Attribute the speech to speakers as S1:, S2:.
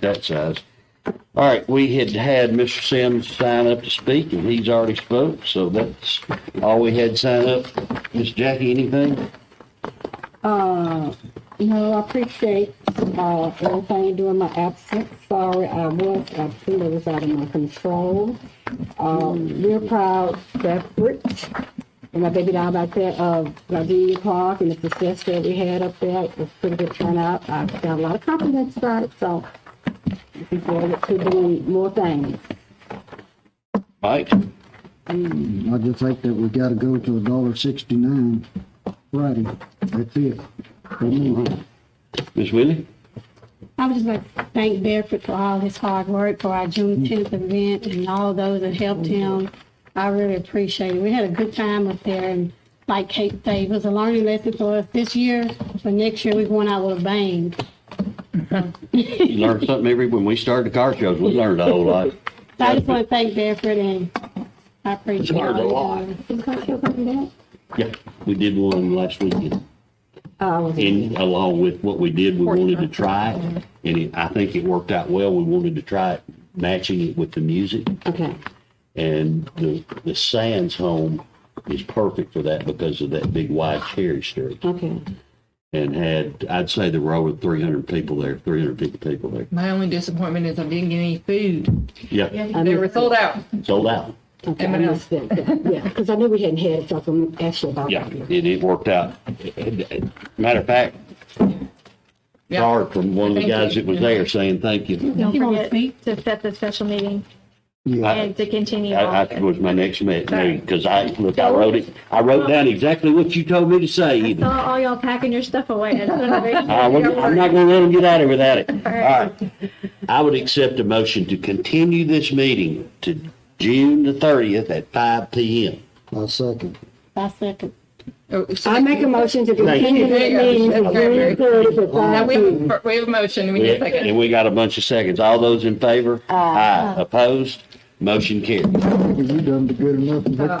S1: that size. All right, we had had Mr. Sims sign up to speak, and he's already spoke, so that's all we had sign up. Miss Jackie, anything?
S2: No, I appreciate, uh, everything during my absence. Sorry, I was absent. It was out of my control. Um, we're proud, separate. And my baby doll back there, uh, Gardenia Park and the success that we had up there it was pretty good turnout. I got a lot of compliments about it, so looking forward to doing more things.
S1: Mike?
S3: I just think that we gotta go to a dollar sixty-nine Friday. That's it. For me.
S1: Miss Willie?
S4: I would just like to thank Bedford for all his hard work for our Juneteenth event and all those that helped him. I really appreciate it. We had a good time up there and like Kate said, it was a learning lesson for us this year, but next year we're going out with a bang.
S1: You learn something every, when we started the car shows, we learned a whole lot.
S4: So I just want to thank Bedford and I appreciate
S1: Learned a
S4: all
S1: lot.
S4: of
S2: Is Carter coming back?
S1: Yeah, we did one last weekend.
S2: Uh, was it-
S1: And along with what we did, we wanted to try it, and it- I think it worked out well. We wanted to try it, matching it with the music.
S2: okay.
S1: And the, the Sands home is perfect for that because of that big wide cherry street.
S2: Okay.
S1: And had, I'd say there were over 300 people there, 350 people there.
S5: My only disappointment is I didn't get any food.
S1: Yeah,
S2: I
S5: They
S2: mean-
S5: were sold out.
S1: sold out.
S2: Okay, I
S5: M&Ms.
S2: understand that. Yeah, because I knew we hadn't had it, so I'm gonna ask you about
S1: Yeah,
S2: that.
S1: and it worked out. Matter of fact,
S5: Yeah.
S1: card from one of the
S5: Thank
S1: guys
S5: you.
S1: that was there saying thank you.
S6: Don't
S4: You wanna
S6: forget
S4: speak?
S6: to set the special meeting
S1: I,
S6: and to continue
S1: I
S6: on.
S1: I was my next minute, because I, look, I wrote it, I wrote down exactly what you told me to say even.
S6: Saw all y'all packing your stuff away. I just wanna make sure
S1: I wouldn't-
S6: you're
S1: I'm not going to let them get out of without it. All
S6: right.
S1: right. I would accept a motion to continue this meeting to June the 30th at 5 PM.
S3: I second.
S4: I second.
S5: Oh, so-
S2: I make a motion to
S1: Thank you.
S2: continue the meeting of June thirtieth at
S5: Now,
S2: five
S5: we
S2: p.m.
S5: have, a- we have a motion, we need a second.
S1: And we got a bunch of seconds. All those in favor? Aye. Opposed? Motion carried.
S3: You done good enough.